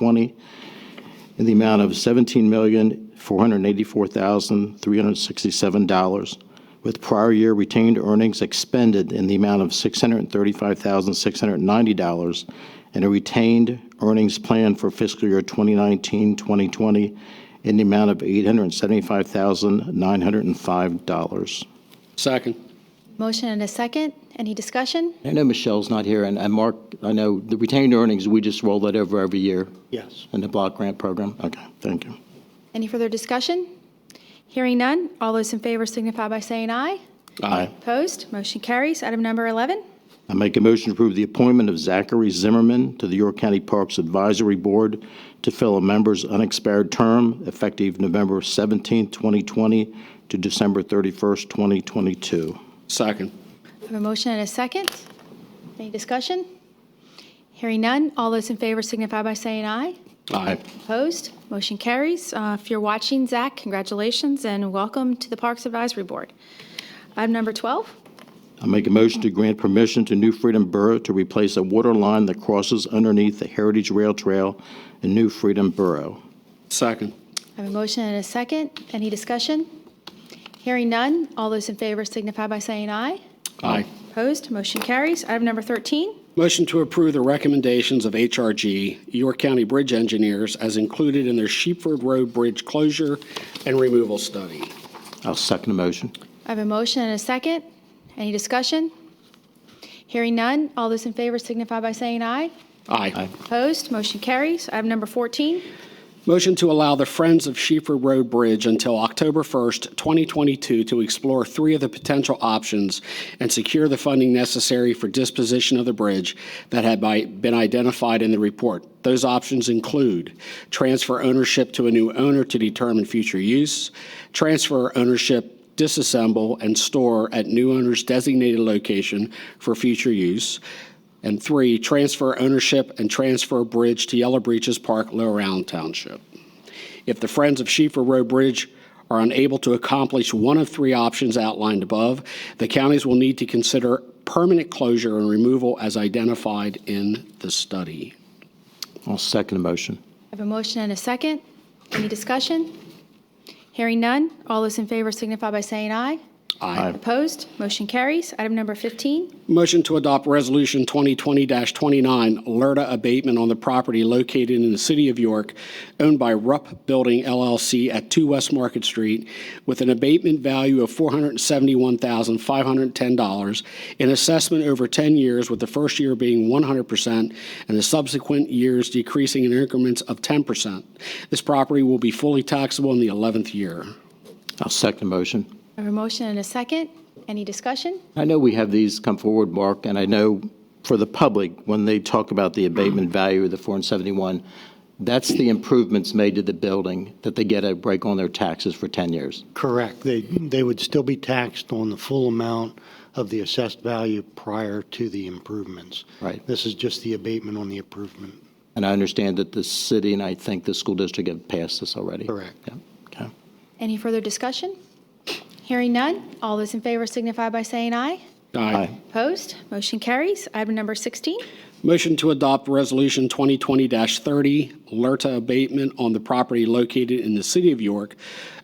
20 in the amount of $17,484,367, with prior year retained earnings expended in the amount of $635,690, and a retained earnings plan for fiscal year 2019-2020 in the amount of $875,905. Second. Motion and a second. Any discussion? I know Michelle's not here, and and Mark, I know the retained earnings, we just roll that over every year Yes. in the block grant program. Okay, thank you. Any further discussion? Hearing none. All those in favor signify by saying aye. Aye. Opposed? Motion carries. Item number 11. I make a motion to approve the appointment of Zachary Zimmerman to the York County Parks Advisory Board to fill a member's unexpired term effective November 17, 2020 to December 31, 2022. Second. I have a motion and a second. Any discussion? Hearing none. All those in favor signify by saying aye. Aye. Opposed? Motion carries. Uh, If you're watching, Zach, congratulations and welcome to the Parks Advisory Board. Item number 12. I make a motion to grant permission to New Freedom Borough to replace a water line that crosses underneath the Heritage Rail Trail in New Freedom Borough. Second. I have a motion and a second. Any discussion? Hearing none. All those in favor signify by saying aye. Aye. Opposed? Motion carries. Item number 13. Motion to approve the recommendations of HRG, York County Bridge Engineers, as included in their Sheepford Road Bridge closure and removal study. I'll second the motion. I have a motion and a second. Any discussion? Hearing none. All those in favor signify by saying aye. Aye. Opposed? Motion carries. Item number 14. Motion to allow the Friends of Sheepford Road Bridge until October 1st, 2022, to explore three of the potential options and secure the funding necessary for disposition of the bridge that had by- been identified in the report. Those options include transfer ownership to a new owner to determine future use, transfer ownership disassemble and store at new owner's designated location for future use. And three, transfer ownership and transfer bridge to Yellow Breaches Park, Little Round Township. If the Friends of Schieffer Road Bridge are unable to accomplish one of three options outlined above, the counties will need to consider permanent closure and removal as identified in the study. I'll second the motion. I have a motion and a second. Any discussion? Hearing none. All those in favor signify by saying aye. Aye. Opposed? Motion carries. Item number 15. Motion to adopt Resolution 2020-29, LERTA abatement on the property located in the city of York, owned by Rupp Building LLC at 2 West Market Street, with an abatement value of $471,510, an assessment over 10 years, with the first year being 100% and the subsequent years decreasing in increments of 10%. This property will be fully taxable in the 11th year. I'll second the motion. I have a motion and a second. Any discussion? I know we have these come forward, Mark, and I know for the public, when they talk about the abatement value of the 471, that's the improvements made to the building, that they get a break on their taxes for 10 years. Correct. They, they would still be taxed on the full amount of the assessed value prior to the improvements. Right. This is just the abatement on the improvement. And I understand that the city and I think the school district have passed this already. Correct. Yeah, okay. Any further discussion? Hearing none. All those in favor signify by saying aye. Aye. Opposed? Motion carries. Item number 16. Motion to adopt Resolution 2020-30, LERTA abatement on the property located in the city of York,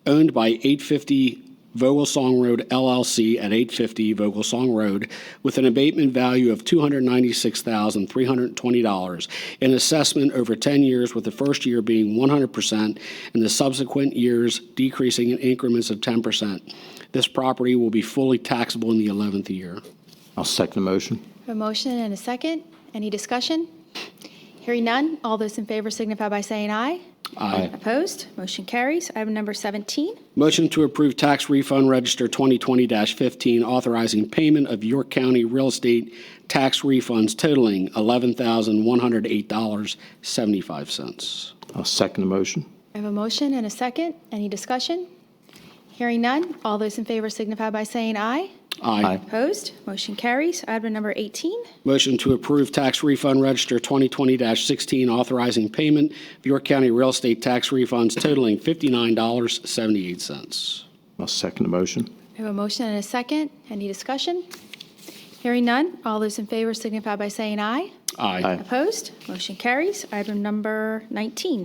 owned by 850 Vogelsong Road LLC at 850 Vogelsong Road, with an abatement value of $296,320, an assessment over 10 years, with the first year being 100% and the subsequent years decreasing in increments of 10%. This property will be fully taxable in the 11th year. I'll second the motion. A motion and a second. Any discussion? Hearing none. All those in favor signify by saying aye. Aye. Opposed? Motion carries. Item number 17. Motion to approve tax refund register 2020-15, authorizing payment of York County real estate tax refunds totaling $11,108.75. I'll second the motion. I have a motion and a second. Any discussion? Hearing none. All those in favor signify by saying aye. Aye. Opposed? Motion carries. Item number 18. Motion to approve tax refund register 2020-16, authorizing payment of York County real estate tax refunds totaling $59.78. I'll second the motion. I have a motion and a second. Any discussion? Hearing none, all those in favor signify by saying aye. Aye. Aye. Opposed? Motion carries. Item number 19.